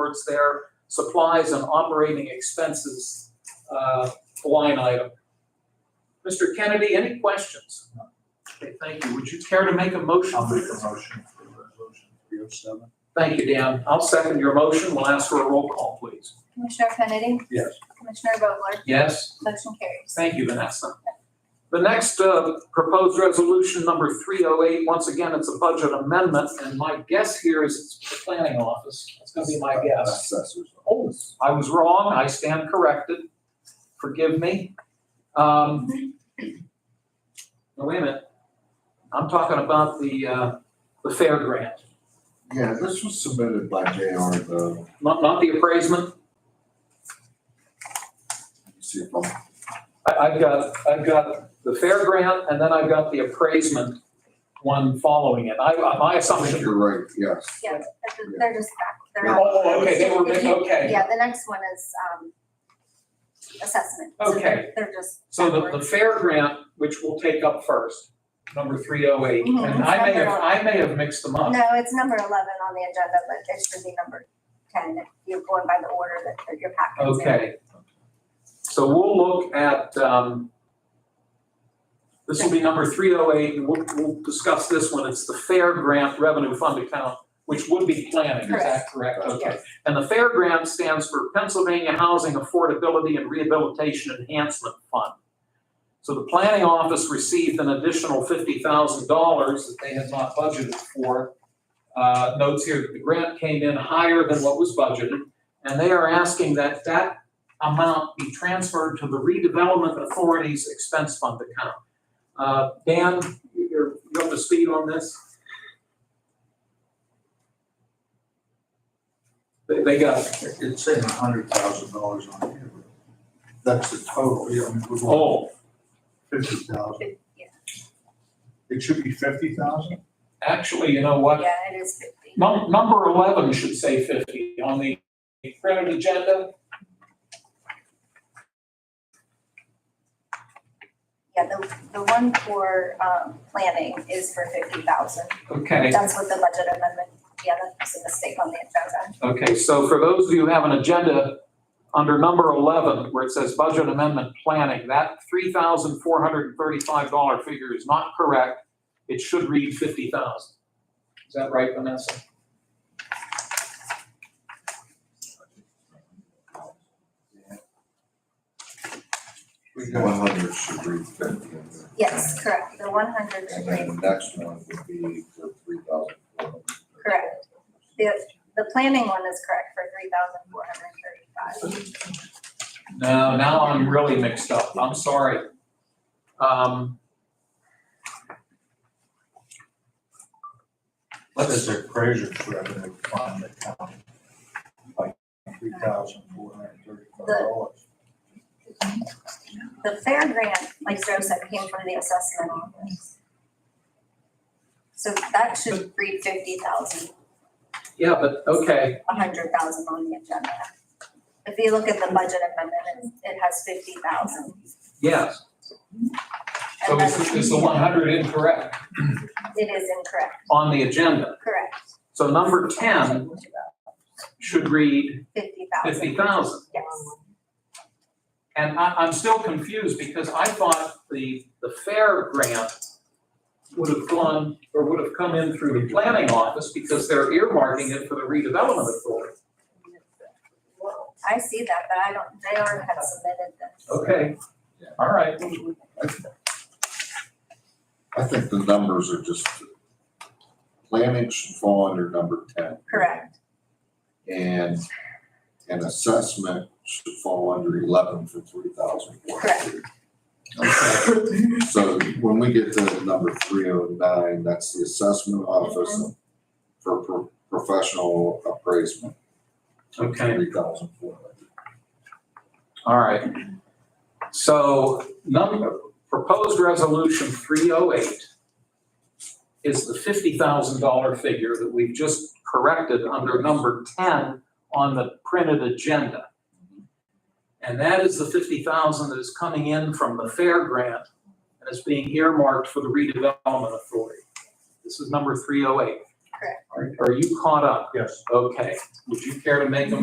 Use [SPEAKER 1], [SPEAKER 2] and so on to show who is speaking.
[SPEAKER 1] towards their supplies and operating expenses uh, line item. Mr. Kennedy, any questions? Okay, thank you. Would you care to make a motion?
[SPEAKER 2] I'll make a motion for resolution three oh seven.
[SPEAKER 1] Thank you, Dan. I'll second your motion. We'll ask for a roll call, please.
[SPEAKER 3] Commissioner Kennedy?
[SPEAKER 2] Yes.
[SPEAKER 3] Commissioner Vogler?
[SPEAKER 1] Yes?
[SPEAKER 3] Motion carries.
[SPEAKER 1] Thank you, Vanessa. The next uh, proposed resolution, number 308, once again, it's a budget amendment, and my guess here is it's the planning office. That's going to be my guess.
[SPEAKER 2] Assessors.
[SPEAKER 1] Oh, I was wrong, I stand corrected. Forgive me. Um, no, Wait a minute. I'm talking about the, uh, the fair grant,
[SPEAKER 2] Yeah, this was submitted by JR, though.
[SPEAKER 1] not, not the appraisement.
[SPEAKER 2] Let me See if I'm,
[SPEAKER 1] I, I've got, I've got the fair grant, and then I've got the appraisement one following it. I, my
[SPEAKER 2] I
[SPEAKER 1] assumption
[SPEAKER 2] think you're right, yes.
[SPEAKER 3] Yeah, they're- they're just back. They're not.
[SPEAKER 1] Oh, okay, they were,
[SPEAKER 3] If you-
[SPEAKER 1] okay.
[SPEAKER 3] Yeah, the next one is, um, assessment. So
[SPEAKER 1] Okay.
[SPEAKER 3] they're- They're just.
[SPEAKER 1] So the, the fair grant, which we'll take up first, number three oh eight,
[SPEAKER 3] Mhm.
[SPEAKER 1] and I may have, I may have mixed them up.
[SPEAKER 3] No, it's number eleven on the agenda, but it should be number ten if you're going by the order that, that your packet is in.
[SPEAKER 1] Okay. So we'll look at, um, this will be number three oh eight, and we'll, we'll discuss this one. It's the fair grant revenue fund account, which would be planning, is that correct?
[SPEAKER 2] Correct.
[SPEAKER 1] Okay. And the fair grant stands for Pennsylvania Housing Affordability and Rehabilitation Enhancement Fund. So the planning office received an additional fifty thousand dollars that they had not budgeted for. Uh, notes here that the grant came in higher than what was budgeted, and they are asking that that amount be transferred to the redevelopment authority's expense fund account. Uh, Dan, you're, you up to speed on this? They, they got
[SPEAKER 2] It's saying a hundred thousand dollars on here. That's the total, yeah, I mean, we
[SPEAKER 1] Oh,
[SPEAKER 2] want fifty thousand.
[SPEAKER 3] Yeah,
[SPEAKER 2] It should be fifty thousand?
[SPEAKER 1] actually, you know what?
[SPEAKER 3] yeah, it is fifty.
[SPEAKER 1] Num- Number 11 should say 50 on the printed agenda.
[SPEAKER 3] Yeah, the, the one for, um, planning is for fifty thousand.
[SPEAKER 1] Okay,
[SPEAKER 3] That's what the budget amendment, yeah, that's a mistake on the agenda.
[SPEAKER 1] okay, so for those of you who have an agenda, under number 11, where it says budget amendment planning, that $3,435 figure is not correct. It should read 50,000. Is that right, Vanessa?
[SPEAKER 2] We got. One hundred should read fifty. in there.
[SPEAKER 3] Yes, correct, the one hundred should
[SPEAKER 2] And
[SPEAKER 3] be,
[SPEAKER 2] then the next one would be the three thousand four hundred.
[SPEAKER 3] Correct. the, the planning one is correct for three thousand four hundred and thirty-five.
[SPEAKER 1] No, now I'm really mixed up. I'm sorry. Um,
[SPEAKER 2] What is the appraiser's revenue fund account? Like three thousand four hundred thirty-five dollars.
[SPEAKER 3] The fair grant, like Joe said, came from the assessment office. So that should read fifty thousand,
[SPEAKER 1] Yeah, but, okay.
[SPEAKER 3] a hundred thousand on the agenda. If you look at the budget amendment, it, it has fifty thousand.
[SPEAKER 1] Yes. So is, is the one hundred incorrect
[SPEAKER 3] It is incorrect,
[SPEAKER 1] on the agenda?
[SPEAKER 3] correct,
[SPEAKER 1] So number ten should read
[SPEAKER 3] fifty thousand.
[SPEAKER 1] fifty thousand.
[SPEAKER 3] Yes,
[SPEAKER 1] And I, I'm still confused because I thought the, the fair grant would have gone, or would have come in through the planning office because they're earmarking it for the redevelopment authority.
[SPEAKER 3] I see that, but I don't, they already have submitted this.
[SPEAKER 1] Okay, all right.
[SPEAKER 2] I think the numbers are just, planning should fall under number ten.
[SPEAKER 3] Correct,
[SPEAKER 2] And an assessment should fall under eleven for three thousand four hundred. Okay, so when we get to number three oh nine, that's the assessment office for pro- professional appraisement.
[SPEAKER 1] Okay.
[SPEAKER 2] Three thousand four hundred.
[SPEAKER 1] All right. So number, proposed resolution three oh eight is the fifty thousand dollar figure that we've just corrected under number ten on the printed agenda. And that is the fifty thousand that is coming in from the fair grant and is being earmarked for the redevelopment authority. This is number three oh eight.
[SPEAKER 3] correct.
[SPEAKER 1] Are you caught up?
[SPEAKER 2] Yes.
[SPEAKER 1] Okay. Would you care to make a